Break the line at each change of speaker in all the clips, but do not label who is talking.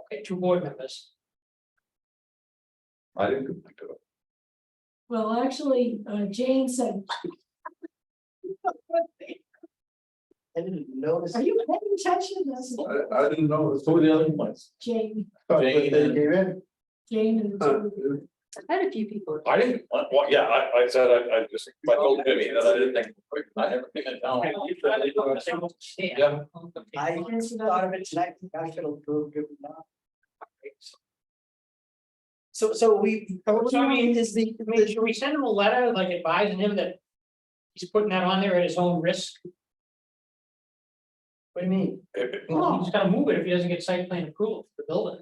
Okay, two board members.
I didn't do it.
Well, actually, uh, Jane said,
I didn't notice. Uh,
are you paying attention to this?
I, I didn't know.
Who were the other ones?
Jane,
But they
Jane and-
gave in.
Jane and.
Uh,
I had a few people.
I didn't, uh, well, yeah, I, I said, I, I just, I told Jimmy that I didn't think, I never think it down. Yeah,
I thought of it tonight, I should have proved it now. So, so we.
So I mean,
is the.
I mean, should we send him a letter like advising him that he's putting that on there at his own risk?
What do you mean?
If- if-
Well, he's gonna move it if he doesn't get site plan approval for the building.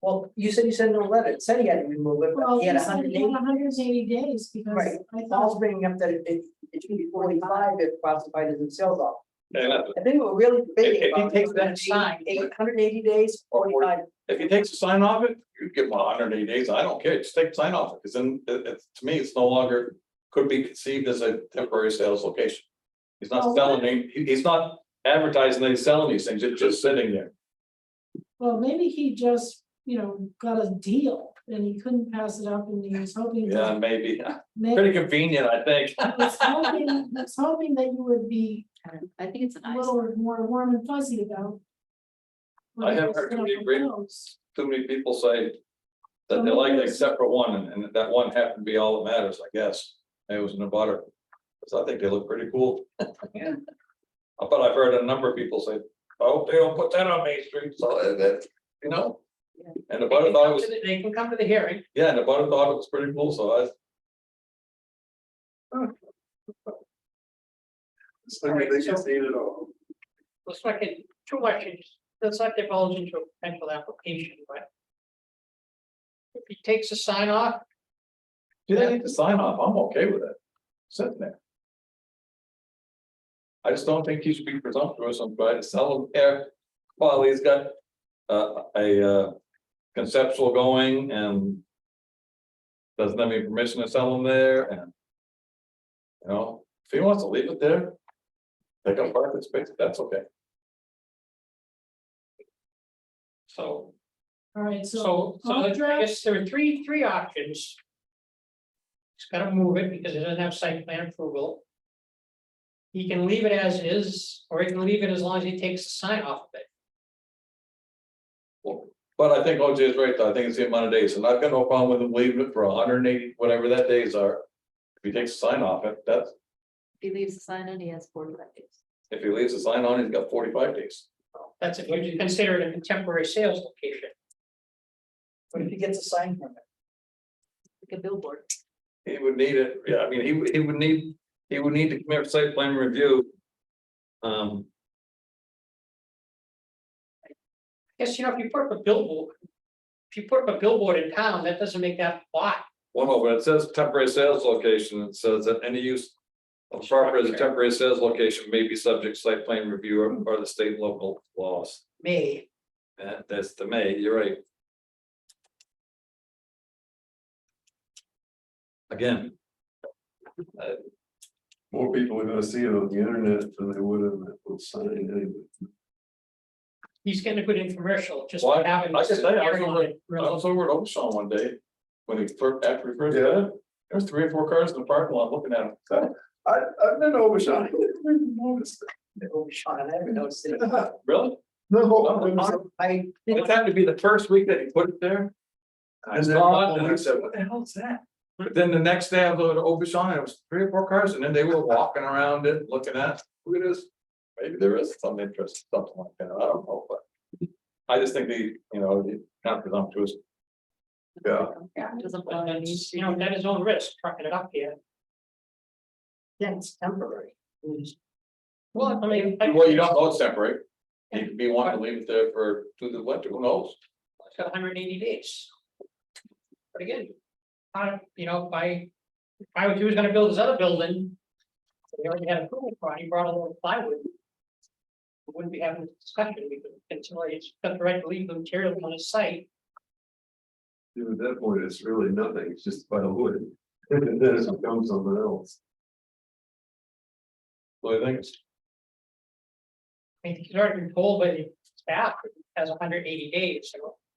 Well, you said you sent him a letter, it said he had to remove it, but
Well,
he
he
had a
said
hundred
he had
and
hundred and eighty days because
Right.
I
eighty, Paul's
thought,
bringing up that it, it, it should be forty-five if classified as a sales off.
and uh,
I think we're really
If-
debating
if he
about.
takes that
sign-
Eight hundred and eighty days, forty-five,
If he takes a sign off it, you give him hundred and eighty days, I don't care, just take the sign off, it, because then, it, it's, to me, it's no longer, could be conceived as a temporary sales location. He's not
Oh.
selling, any- he, he's not advertising that he's selling these things, it's just sitting there.
well, maybe he just, you know, got a deal and he couldn't pass it up and he was hoping. to
Yeah, maybe,
make-
pretty convenient, I think.
was hoping, was hoping that you would be
I think it's
a
nice.
little more warm and fuzzy about. what
I have
was
heard
gonna
somebody agree.
propose.
too many people say. That they like it except for one, and, and that one happened to be all that matters, I guess, it was in a butter. Cause I think they look pretty cool.
Yeah.
But I've heard a number of people say, oh, they don't put that on Main Street, so uh, that, you know.
Yeah.
And
They
the butter
can
thought it
come to
was,
the- they can come to the hearing.
yeah, and the butter thought it was pretty cool, so I,
So they can see it all.
Let's not get too much, into- let's not divulge into a potential application, but. If he takes a sign off,
do they need to sign off, I'm okay with it. Sitting there. I just don't think he should be presumptuous on trying to sell him there while he's got uh, a uh, conceptual going and. Doesn't have any permission to sell them there and. You know, if he wants to leave it there. They can park the space, that's okay.
so,
All right, so
so, so I guess there are three, three options. He's gotta move it because it doesn't have site plan approval. He can leave it as is, or he can leave it as long as he takes the sign off of it.
But I think OJ is right, though. I think it's the amount of days, and I've got no problem with him leaving it for hundred and eighty, whatever that days are. If he takes a sign off it, that's,
He leaves the sign and he has four days.
if he leaves a sign on, he's got forty-five days.
That's if you consider it a temporary sales location.
but if he gets a sign from it.
Like a billboard.
He would need it, yeah, I mean, he, would- he would need, he would need to come here for site plan review. Um,
Yes, you know, if you put up a billboard. If you put up a billboard in town, that doesn't make that lot.
one over, it says temporary sales location, it says that any use. Of property as a temporary sales location may be subject to site plan review or, or the state and local laws.
May.
That, that's the May, you're right. Again,
More people are gonna see it on the internet than they would on that little sign anyway.
He's getting a good infomercial, just
Why-
having.
I just say, I was
Aaron on
over-
it,
I
really.
was over at Ocean one day, when he first, after he first, got it, there was three or four cars in the parking lot looking at him.
I, I've been over Shawnee.
Oh, Sean, I haven't noticed it.
Really? Oh,
No.
I,
It happened to be the first week that he put it there. I
And then a
saw it,
couple
and I
weeks-
said, what the hell is that? But Then the next day I was over to Ocean, and it was three or four cars, and then they were walking around it, looking at, look at this. Maybe there is some interest, something like that, I don't know, but. I just think the, you know, the not presumptuous,
Yeah.
Yeah. Doesn't belong
But
on these.
that's, You know, that is own risk, trucking it up here.
yeah, it's temporary. It's-
Well, I mean. I-
well, you don't know it's temporary. He could be wanting to leave it there for, through the winter, who knows?
It's got hundred and eighty days. But again, I, you know, by, if I was, he was gonna build his other building. We already had approval for it, he brought a little plywood. We Wouldn't be having this discussion, because until he's got the right to leave the material on his site,
Dude, At that point, it's really nothing, it's just by the wood. And then it becomes something else.
So I think it's,
I mean, he's already been told by the staff, it has hundred and eighty days, so.